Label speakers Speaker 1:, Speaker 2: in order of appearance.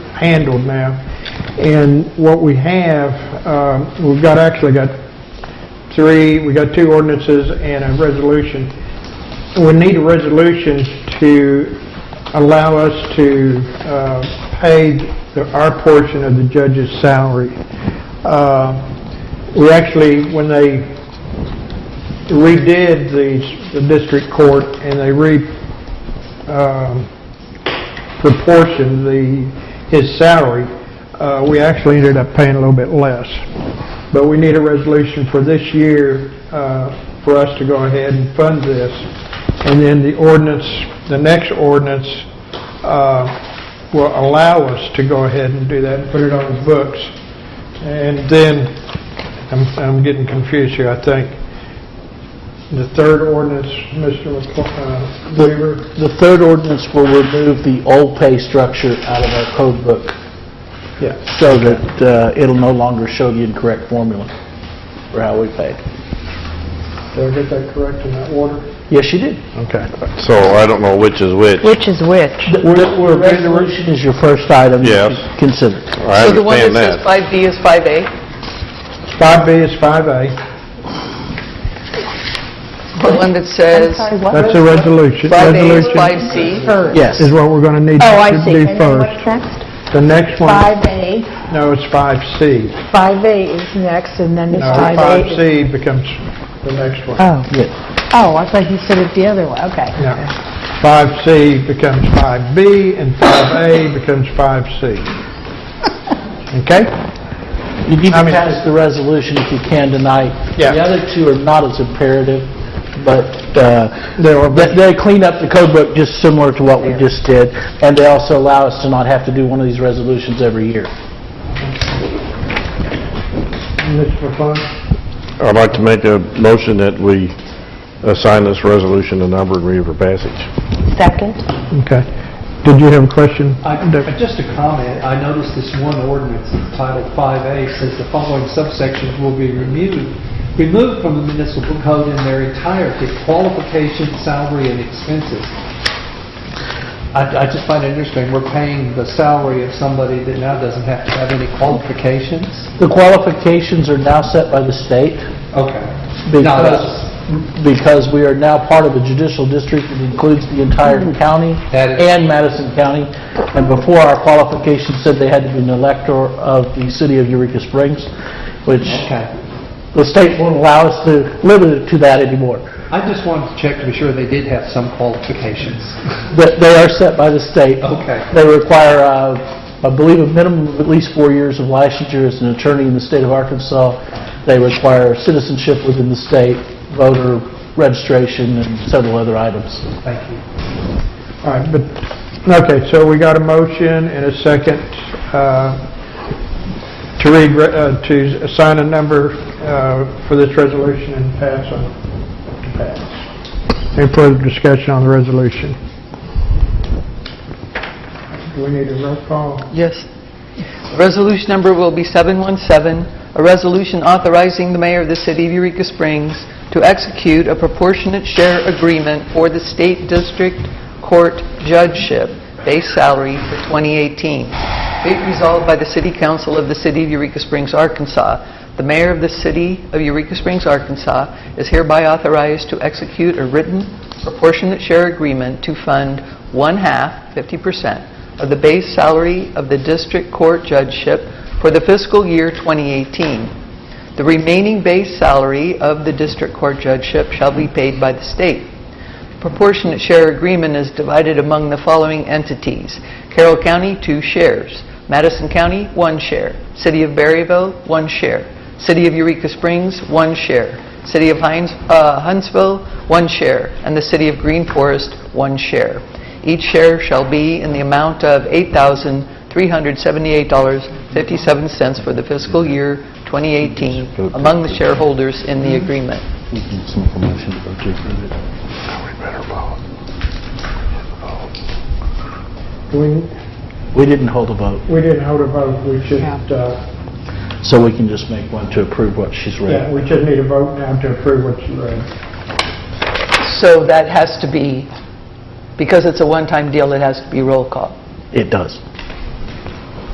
Speaker 1: handled now. And what we have, um, we've got, actually got three, we got two ordinances and a resolution. We need a resolution to allow us to uh, pay the- our portion of the judge's salary. Uh, We actually, when they redid the the district court and they re, um, proportioned the, his salary, uh, we actually ended up paying a little bit less. But we need a resolution for this year, uh, for us to go ahead and fund this. And then the ordinance, the next ordinance, uh, will allow us to go ahead and do that and put it on the books. And then, I'm, I'm getting confused here, I think. The third ordinance, Mr. McCl- uh, Weaver?
Speaker 2: The third ordinance will remove the old pay structure out of our code book
Speaker 1: Yeah.
Speaker 2: so that uh, it'll no longer show the incorrect formula for how we paid.
Speaker 1: Did I get that correct in that order?
Speaker 2: Yes, you did.
Speaker 1: Okay.
Speaker 3: So I don't know which is which.
Speaker 4: Which is which?
Speaker 2: The the resolution is your first item to
Speaker 3: Yes.
Speaker 2: consider.
Speaker 3: I
Speaker 5: So the one
Speaker 3: understand
Speaker 5: that says
Speaker 3: that.
Speaker 5: 5B is 5A?
Speaker 1: 5B is 5A.
Speaker 5: The one that says
Speaker 1: That's a resolution.
Speaker 5: 5A is
Speaker 1: Resolution
Speaker 5: 5C?
Speaker 2: Yes.
Speaker 1: Is what we're going to need
Speaker 4: Oh, I
Speaker 1: to
Speaker 4: see.
Speaker 1: do
Speaker 4: And then
Speaker 1: first.
Speaker 4: what's next?
Speaker 1: The next one,
Speaker 4: 5A.
Speaker 1: no, it's 5C.
Speaker 4: 5A is next, and then it's
Speaker 1: No,
Speaker 4: 5A. is-
Speaker 1: 5C becomes the next one.
Speaker 4: Oh,
Speaker 2: Yeah.
Speaker 4: oh, I thought you said it's the other one, okay.
Speaker 1: No. 5C becomes 5B, and 5A becomes 5C. Okay?
Speaker 2: You need
Speaker 1: I
Speaker 2: to
Speaker 1: mean-
Speaker 2: pass the resolution if you can tonight.
Speaker 1: Yeah.
Speaker 2: The other two are not as imperative, but uh,
Speaker 1: They were-
Speaker 2: they they clean up the code book just similar to what we just did, and they also allow us to not have to do one of these resolutions every year.
Speaker 1: Mr. McClung?
Speaker 3: I'd like to make a motion that we assign this resolution a number and read it for passage.
Speaker 4: Second?
Speaker 1: Okay. Did you have a question?
Speaker 6: I- I- Just a comment, I noticed this one ordinance titled 5A says the following subsections will be removed, removed from the municipal code in their entirety, qualifications, salary, and expenses. I I just find it interesting, we're paying the salary of somebody that now doesn't have to have any qualifications?
Speaker 2: The qualifications are now set by the state
Speaker 6: Okay. No,
Speaker 2: because,
Speaker 6: that's-
Speaker 2: because we are now part of a judicial district that includes the entire county
Speaker 6: Mm-hmm. That is-
Speaker 2: and Madison County. And before, our qualifications said they had to be an elector of the city of Eureka Springs, which
Speaker 6: Okay.
Speaker 2: the state won't allow us to limit it to that anymore.
Speaker 6: I just wanted to check to be sure they did have some qualifications.
Speaker 2: But they are set by the state.
Speaker 6: Okay.
Speaker 2: They require, uh, I believe, a minimum of at least four years of licensure as an attorney in the state of Arkansas. They require citizenship within the state, voter registration, and several other items.
Speaker 6: Thank you.
Speaker 1: All right, but, okay, so we got a motion and a second uh, to read, re- uh, to assign a number uh, for this resolution and pass on, to pass. Any further discussion on the resolution? Do we need a roll call?
Speaker 5: Yes. Resolution number will be 717, a resolution authorizing the mayor of the city of Eureka Springs to execute a proportionate share agreement for the state district court judgeship base salary for 2018. Be it resolved by the city council of the city of Eureka Springs, Arkansas. The mayor of the city of Eureka Springs, Arkansas is hereby authorized to execute a written proportionate share agreement to fund one-half, 50%, of the base salary of the district court judgeship for the fiscal year 2018. The remaining base salary of the district court judgeship shall be paid by the state. Proportionate share agreement is divided among the following entities: Carroll County, two shares; Madison County, one share; City of Berryville, one share; City of Eureka Springs, one share; City of Hines- uh, Huntsville, one share; and the City of Green Forest, one share. Each share shall be in the amount of $8,378.57 for the fiscal year 2018 among the shareholders in the agreement.
Speaker 1: Do we,
Speaker 2: We didn't hold a vote,
Speaker 1: we didn't hold a vote, we should, uh,
Speaker 2: so we can just make one to approve what she's
Speaker 1: yeah,
Speaker 2: read.
Speaker 1: we should need a vote now to approve what you read.
Speaker 5: So that has to be, because it's a one-time deal, it has to be roll call.
Speaker 2: It does.